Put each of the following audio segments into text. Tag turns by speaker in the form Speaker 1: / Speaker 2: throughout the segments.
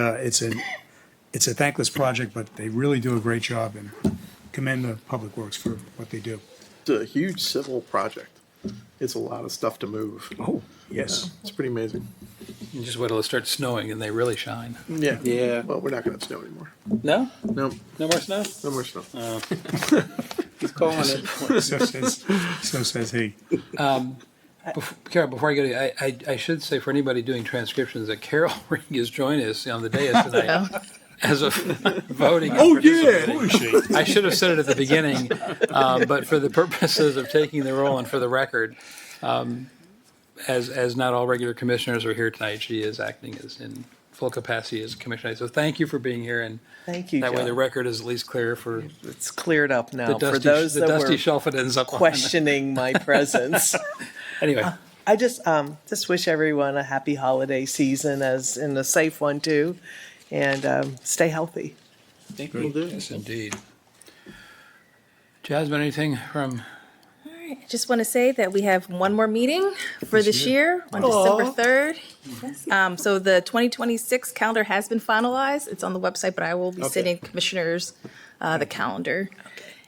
Speaker 1: Uh, It's a, it's a thankless project, but they really do a great job and commend the Public Works for what they do.
Speaker 2: It's a huge civil project. It's a lot of stuff to move.
Speaker 1: Oh, yes.
Speaker 2: It's pretty amazing.
Speaker 3: You just wait till it starts snowing and they really shine.
Speaker 2: Yeah.
Speaker 3: Yeah.
Speaker 2: Well, we're not going to have snow anymore.
Speaker 3: No?
Speaker 2: No,
Speaker 3: No more snow?
Speaker 2: no more snow.
Speaker 3: He's calling it.
Speaker 1: So says, so says he.
Speaker 3: Carol, before I go to you, I, I, I should say for anybody doing transcriptions that Carol Ring is joining us on the dais tonight as a voting. and participating.
Speaker 1: Who is she?
Speaker 3: I should have said it at the beginning, um, but for the purposes of taking the role and for the record, um, as as not all regular commissioners are here tonight, she is acting as in full capacity as commissioner. So thank you for being here, and
Speaker 4: Thank you,
Speaker 3: that way the
Speaker 4: John.
Speaker 3: record is at least clear for
Speaker 4: It's cleared up
Speaker 3: the
Speaker 4: now for
Speaker 3: dusty
Speaker 4: those
Speaker 3: the
Speaker 4: that
Speaker 3: dusty
Speaker 4: were
Speaker 3: shelf it ends up on.
Speaker 4: questioning my presence.
Speaker 3: Anyway,
Speaker 4: I just, um, just wish everyone a happy holiday season as, and a safe one too. And, um, stay healthy.
Speaker 2: Thank you.
Speaker 3: yes, indeed. Jasmine, anything from
Speaker 5: I just want to say that we have one more meeting for this year on December 3rd. Um, So the 2026 calendar has been finalized. It's on the website, but I will be sending commissioners uh, the calendar.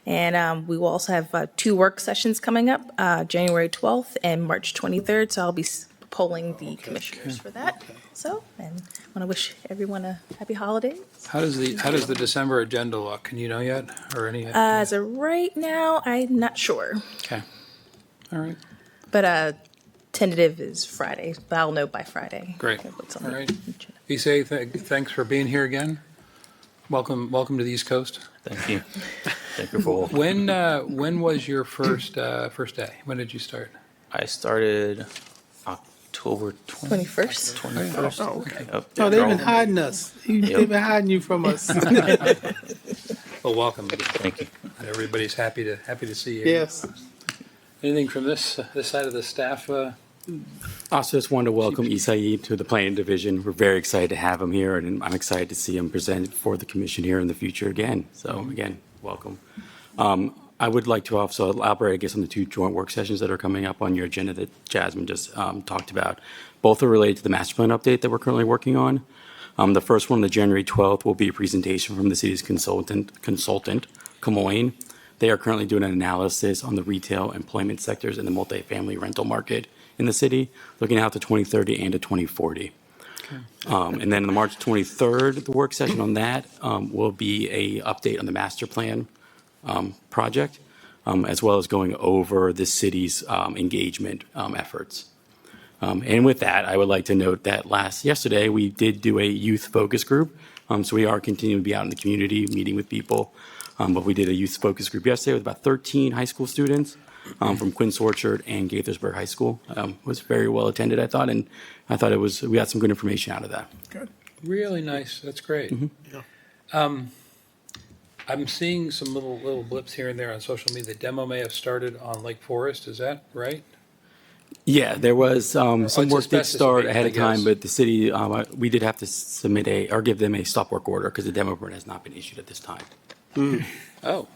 Speaker 5: And um, we will also have uh, two work sessions coming up, uh, January 12th and March 23rd. So I'll be s- polling the commissioners for that. So, and I want to wish everyone a happy holiday.
Speaker 3: how does the how does the December agenda look? Can you know yet or any?
Speaker 4: Uh,
Speaker 5: Uh, As of right now, I'm not sure,
Speaker 3: okay, all right.
Speaker 5: but uh, tentative is Friday, but I'll know by Friday.
Speaker 3: Great.
Speaker 5: What's on the
Speaker 3: All right.
Speaker 5: agenda.
Speaker 3: Issei, th- thanks for being here again. Welcome, welcome to the East Coast.
Speaker 6: Thank you. Thank you for all.
Speaker 3: When uh, when was your first uh, first day? When did you start?
Speaker 6: I started October 20,
Speaker 5: 21st.
Speaker 6: 21st.
Speaker 2: Oh, okay.
Speaker 6: Yep.
Speaker 7: No, they've
Speaker 6: Y'all-
Speaker 7: been hiding us. You- They've been hiding you from us.
Speaker 3: Well, Oh, welcome.
Speaker 6: Thank you.
Speaker 3: Everybody's happy to happy to see you.
Speaker 7: yes.
Speaker 3: Anything from this this side of the staff? Uh,
Speaker 8: Also, just wanted to welcome Isai to the planning division. We're very excited to have him here, and I'm excited to see him present for the commission here in the future again. So again, welcome. Um, I would like to also elaborate, I guess, on the two joint work sessions that are coming up on your agenda that Jasmine just um, talked about. Both are related to the master plan update that we're currently working on. Um, The first one, the January 12th, will be a presentation from the city's consultant, consultant, Camoin. They are currently doing an analysis on the retail employment sectors and the multifamily rental market in the city, looking out to 2030 and to 2040. Um, And then on the March 23rd, the work session on that um, will be a update on the master plan um, project, um, as well as going over the city's um, engagement um, efforts. Um, and with that, I would like to note that last yesterday we did do a youth focus group. Um, so we are continuing to be out in the community, meeting with people. Um, but we did a youth focus group yesterday with about 13 high school students um, from Quince Orchard and Gaithersburg High School. Um, it was very well attended, I thought, and I thought it was we got some good information out of that.
Speaker 3: really nice. That's great. Um, I'm seeing some little little blips here and there on social media. The demo may have started on Lake Forest. Is that right?
Speaker 8: Yeah, there was um, some
Speaker 3: it's
Speaker 8: work did
Speaker 3: asbestos
Speaker 8: start
Speaker 3: abatement,
Speaker 8: ahead
Speaker 3: I
Speaker 8: of time,
Speaker 3: guess.
Speaker 8: but the city um, uh, we did have to submit a or give them a stop work order because the demo permit has not been issued at this time.
Speaker 3: Oh,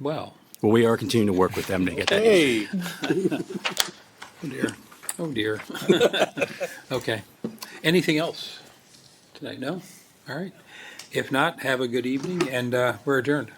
Speaker 3: well.
Speaker 8: Well, we are continuing to work with them to get that. issued.
Speaker 7: Hey.
Speaker 3: Oh dear. Oh dear. okay. Anything else tonight? No? All right. If not, have a good evening and uh, we're adjourned.